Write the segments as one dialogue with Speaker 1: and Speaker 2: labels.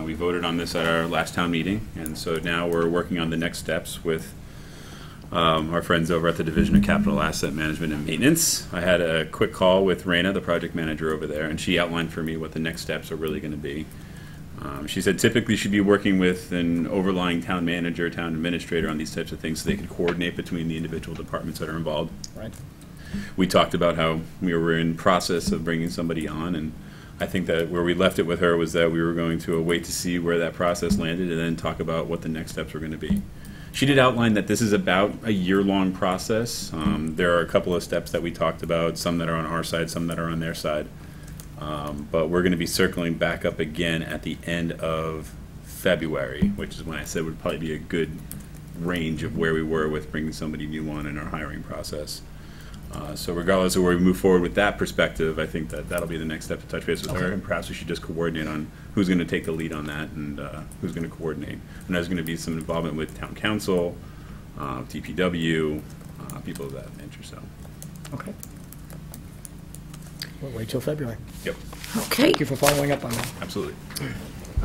Speaker 1: Uh, voted on this at our last town meeting, and so now we're working on the next steps with um, our friends over at the Division of Capital Asset Management and Maintenance. I had a quick call with Raina, the project manager over there, and she outlined for me what the next steps are really going to be. Um, She said typically she'd be working with an overlying town manager, town administrator on these types of things, so they could coordinate between the individual departments that are involved
Speaker 2: Right.
Speaker 1: we talked about how we were in process of bringing somebody on, and I think that where we left it with her was that we were going to wait to see where that process landed and then talk about what the next steps were going to be. She did outline that this is about a year-long process. Um, there are a couple of steps that we talked about, some that are on our side, some that are on their side. Um, but we're going to be circling back up again at the end of February, which is when I said would probably be a good range of where we were with bringing somebody new on in our hiring process. Uh, So regardless of where we move forward with that perspective, I think that that'll be the next step to touch base with her. And perhaps we should just coordinate on who's going to take the lead on that and uh, who's going to coordinate. And there's going to be some involvement with town council, uh, DPW, uh, people of that nature, so.
Speaker 2: Okay. We'll wait till February.
Speaker 1: Yep,
Speaker 3: Okay,
Speaker 2: Thank you for following up on that.
Speaker 1: absolutely.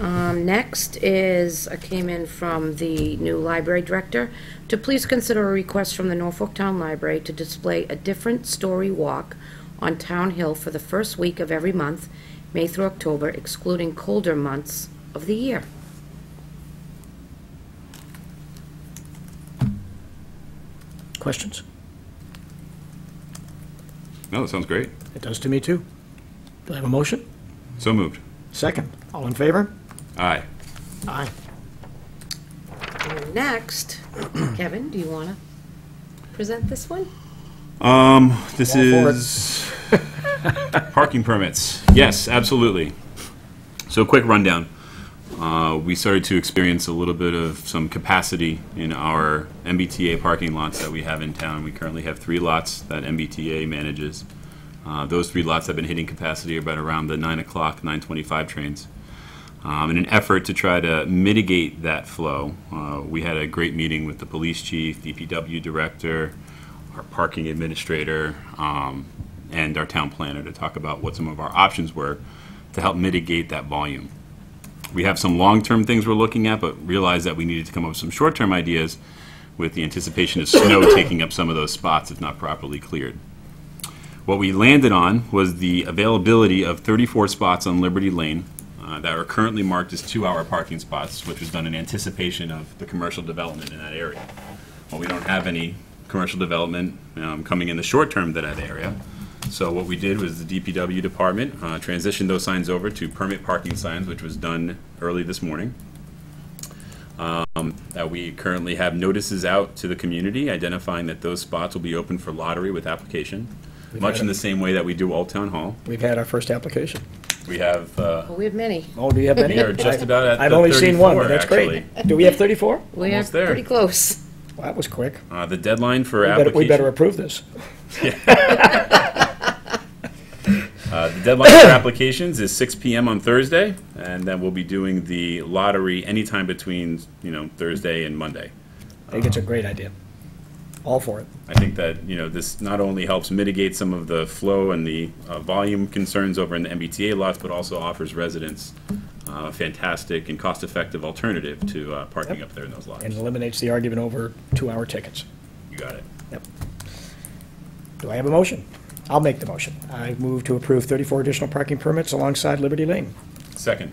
Speaker 3: um, next is, I came in from the new library director, to please consider a request from the Norfolk Town Library to display a different story walk on Town Hill for the first week of every month, May through October, excluding colder months of the year.
Speaker 2: Questions?
Speaker 1: No, that sounds great.
Speaker 2: It does to me, too. Do I have a motion?
Speaker 1: So moved.
Speaker 2: Second. All in favor?
Speaker 1: Aye.
Speaker 2: Aye.
Speaker 3: And Next, Kevin, do you want to present this one?
Speaker 1: Um, this
Speaker 2: Go for it.
Speaker 1: is parking permits. Yes, absolutely. So a quick rundown. Uh, we started to experience a little bit of some capacity in our MBTA parking lots that we have in town. We currently have three lots that MBTA manages. Uh, those three lots have been hitting capacity about around the nine o'clock, nine twenty-five trains. Um, in an effort to try to mitigate that flow, uh, we had a great meeting with the police chief, DPW director, our parking administrator, um, and our town planner to talk about what some of our options were to help mitigate that volume. We have some long-term things we're looking at, but realized that we needed to come up with some short-term ideas with the anticipation of snow taking up some of those spots if not properly cleared. What we landed on was the availability of 34 spots on Liberty Lane uh, that are currently marked as two-hour parking spots, which was done in anticipation of the commercial development in that area well, we don't have any commercial development um, coming in the short term to that area. So what we did was the DPW department uh, transitioned those signs over to permit parking signs, which was done early this morning. Um, That we currently have notices out to the community identifying that those spots will be open for lottery with application, much
Speaker 2: had
Speaker 1: in
Speaker 2: it.
Speaker 1: the same way that we do Old Town Hall.
Speaker 2: We've had our first application.
Speaker 1: We have, uh,
Speaker 3: Well, we have many.
Speaker 2: Oh, do you have any?
Speaker 1: we are just about at
Speaker 2: I've
Speaker 1: the
Speaker 2: only seen one,
Speaker 1: 34,
Speaker 2: but that's great.
Speaker 1: actually.
Speaker 2: Do we have 34?
Speaker 3: We are
Speaker 1: Almost there.
Speaker 3: pretty close.
Speaker 2: Well, that was quick.
Speaker 1: Uh, The deadline for
Speaker 2: We better-
Speaker 1: application.
Speaker 2: We better approve this.
Speaker 1: Uh, The deadline for applications is 6 PM on Thursday, and then we'll be doing the lottery anytime between, you know, Thursday and Monday.
Speaker 2: I think
Speaker 1: Uh-huh.
Speaker 2: it's a great idea. All for it.
Speaker 1: I think that, you know, this not only helps mitigate some of the flow and the uh, volume concerns over in the MBTA lots, but also offers residents uh, a fantastic and cost-effective alternative to uh, parking up there in those lots.
Speaker 2: And eliminates the argument over two-hour tickets.
Speaker 1: You got it.
Speaker 2: Yep. Do I have a motion? I'll make the motion. I move to approve 34 additional parking permits alongside Liberty Lane.
Speaker 1: Second.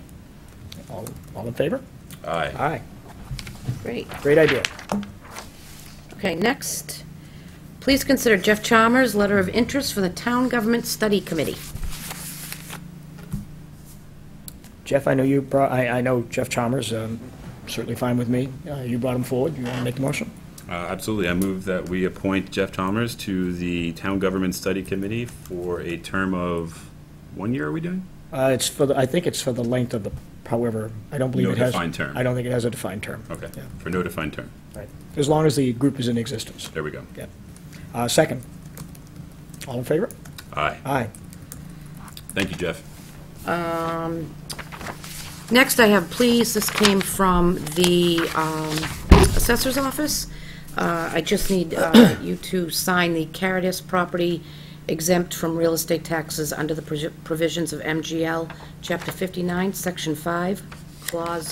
Speaker 2: All all in favor?
Speaker 1: Aye.
Speaker 2: Aye.
Speaker 3: Great.
Speaker 2: Great idea.
Speaker 3: Okay, next, please consider Jeff Chalmers' letter of interest for the Town Government Study Committee.
Speaker 2: Jeff, I know you brought, I, I know Jeff Chalmers, um, certainly fine with me. Uh, You brought him forward. You want to make the motion?
Speaker 1: Uh, Absolutely. I move that we appoint Jeff Chalmers to the Town Government Study Committee for a term of, one year are we doing?
Speaker 2: Uh, It's for the, I think it's for the length of the, however, I don't believe
Speaker 1: No
Speaker 2: it has.
Speaker 1: defined term.
Speaker 2: I don't think it has a defined term.
Speaker 1: Okay,
Speaker 2: Yeah,
Speaker 1: for no defined term.
Speaker 2: right. As long as the group is in existence.
Speaker 1: There we go.
Speaker 2: Yeah. Uh, Second. All in favor?
Speaker 1: Aye.
Speaker 2: Aye.
Speaker 1: Thank you, Jeff.
Speaker 3: Next, I have please, this came from the um, assessor's office. Uh, I just need uh, you to sign the Caritas property exempt from real estate taxes under the provi- provisions of MGL, Chapter 59, Section 5, Clause